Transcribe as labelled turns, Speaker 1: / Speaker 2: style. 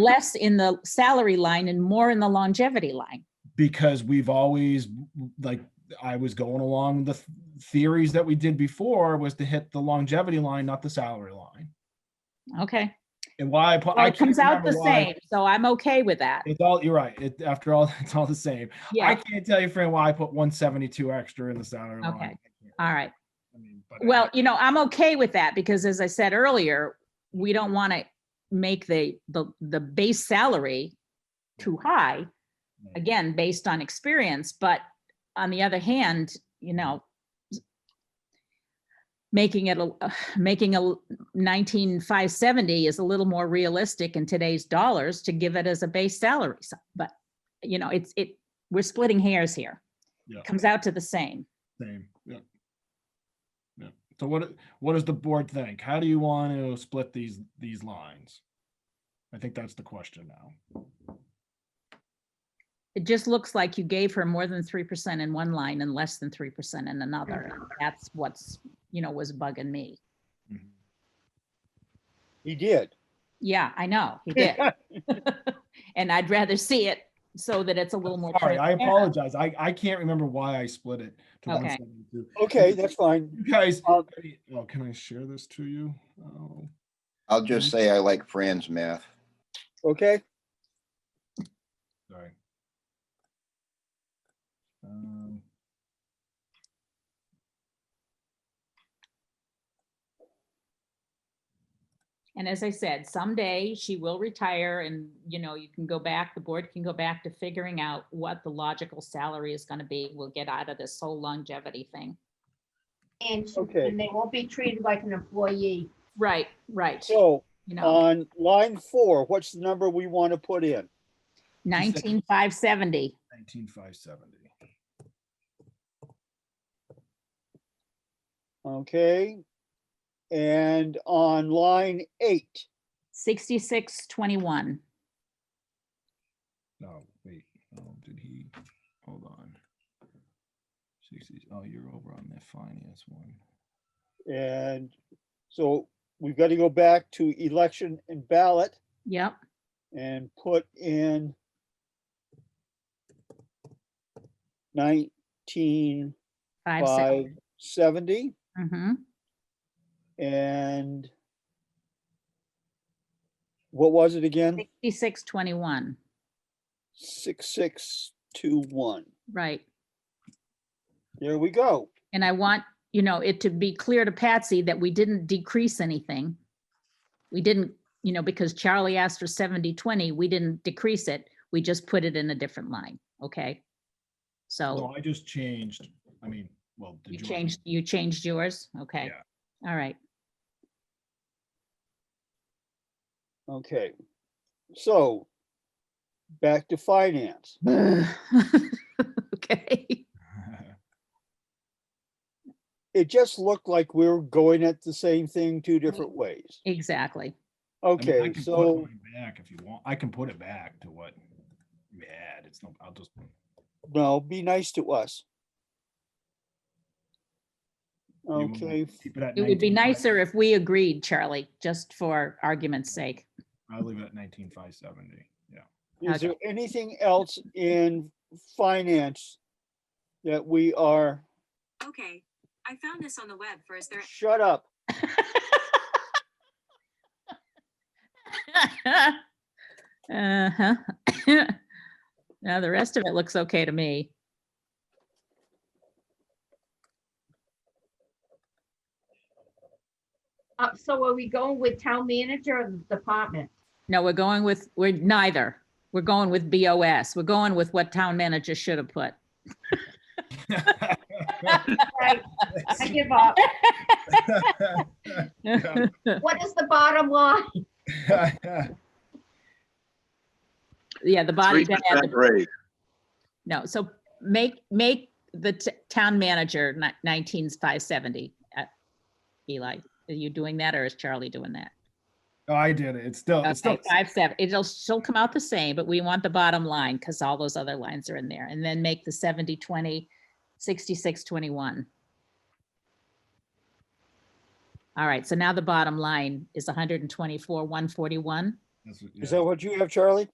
Speaker 1: less in the salary line and more in the longevity line.
Speaker 2: because we've always like I was going along the th- theories that we did before was to hit the longevity line, not the salary line.
Speaker 1: Okay.
Speaker 2: And why I, pu-
Speaker 1: Well,
Speaker 2: I
Speaker 1: it comes
Speaker 2: can't
Speaker 1: out the
Speaker 2: remember why.
Speaker 1: same, so I'm okay with that.
Speaker 2: It's all you're right. It after all, it's all the same. I
Speaker 1: Yeah,
Speaker 2: can't tell you, friend, why I put 172 extra in the salary line.
Speaker 1: Okay.
Speaker 2: I can't-
Speaker 1: all right.
Speaker 2: I mean, but uh,
Speaker 1: Well, you know, I'm okay with that because as I said earlier, we don't want to make the, the, the base salary too high,
Speaker 2: anyway.
Speaker 1: again, based on experience, but on the other hand, you know, making it, a making a nineteen five seventy is a little more realistic in today's dollars to give it as a base salary. So- But, you know, it's, it, we're splitting hairs here.
Speaker 2: Yeah.
Speaker 1: Comes out to the same.
Speaker 2: Same. Yeah. Yeah. So what what does the board think? How do you want to split these these lines? I think that's the question now.
Speaker 1: It just looks like you gave her more than three percent in one line and less than three percent in another.
Speaker 2: Mm-hmm.
Speaker 1: That's what's, you know, was bugging me.
Speaker 2: Mhm.
Speaker 3: He did.
Speaker 1: Yeah, I know, he did. And I'd rather see it so that it's a little more.
Speaker 2: Sorry, I
Speaker 1: transparent.
Speaker 2: apologize. I, I can't remember why I split it to
Speaker 1: Okay.
Speaker 2: 172.
Speaker 3: Okay, that's fine.
Speaker 2: You guys,
Speaker 3: Um,
Speaker 2: oh, can I share this to you? Oh,
Speaker 4: I'll just say I like Fran's math.
Speaker 3: Okay,
Speaker 2: sorry. Um,
Speaker 1: And as I said, someday she will retire and, you know, you can go back, the board can go back to figuring out what the logical salary is gonna be. We'll get out of this whole longevity thing.
Speaker 5: And, she-
Speaker 3: Okay.
Speaker 5: and they won't be treated like an employee.
Speaker 1: Right, right,
Speaker 3: so
Speaker 1: you
Speaker 2: uh,
Speaker 1: know,
Speaker 3: on line four, what's the number we want to put in?
Speaker 1: nineteen five seventy.
Speaker 2: 19570.
Speaker 3: Okay? And on line eight,
Speaker 1: 6621.
Speaker 2: No, wait, oh, did he, hold on. 60, oh, you're over on the finance one.
Speaker 3: and so we've got to go back to election and ballot
Speaker 1: Yep,
Speaker 3: and put in nineteen
Speaker 1: five,
Speaker 3: five
Speaker 1: seven.
Speaker 3: seventy
Speaker 1: Mm-hmm.
Speaker 3: and what was it again?
Speaker 1: 6621,
Speaker 3: Six, six, two, one.
Speaker 1: right.
Speaker 3: There we go.
Speaker 1: And I want, you know, it to be clear to Patsy that we didn't decrease anything. We didn't, you know, because Charlie asked for 70, 20, we didn't decrease it. We just put it in a different line, okay? So
Speaker 2: No, I just changed, I mean, well. did
Speaker 1: Oh. you
Speaker 2: yours-
Speaker 1: changed, you changed yours, okay? All right,
Speaker 3: Okay. So back to finance.
Speaker 1: okay.
Speaker 3: It just looked like we were going at the same thing two different ways.
Speaker 1: Exactly,
Speaker 2: Mm-hmm. I mean, I
Speaker 3: Okay,
Speaker 2: can put
Speaker 3: so,
Speaker 2: mine Back if you want, I can put it back to what, yeah, it's no, I'll just,
Speaker 3: no, be nice to us.
Speaker 2: want me to
Speaker 3: Okay,
Speaker 2: keep it at.
Speaker 1: it would be
Speaker 2: 19,500.
Speaker 1: nicer if we agreed, Charlie, just for argument's sake.
Speaker 2: I'll leave it at nineteen five seventy, yeah.
Speaker 3: is there anything else in finance that we are,
Speaker 6: Okay, I found this on the web for is there
Speaker 3: shut up.
Speaker 1: Uh-huh. Now, the rest of it looks okay to me.
Speaker 5: Uh, so are we going with town manager or the department?
Speaker 1: No, we're going with, we're neither. We're going with BOS. We're going with what town manager should have put.
Speaker 5: Right, I give up.
Speaker 2: Yeah.
Speaker 5: What is the bottom line?
Speaker 1: Yeah, the body,
Speaker 7: Three
Speaker 1: bag and the-
Speaker 7: percent raise.
Speaker 1: no, so make, make the t- town manager ni- 19's 570. uh, Eli, are you doing that or is Charlie doing that?
Speaker 2: No, I did it, it's still, Oh, it's still,
Speaker 1: Okay, five, seven, it'll still come out the same, but we want the bottom line because all those other lines are in there. And then make the 70, 20, 66, 21. All right, so now the bottom line is 124, 141.
Speaker 2: that's That's what-
Speaker 3: Is
Speaker 2: yeah.
Speaker 3: that what you have, Charlie?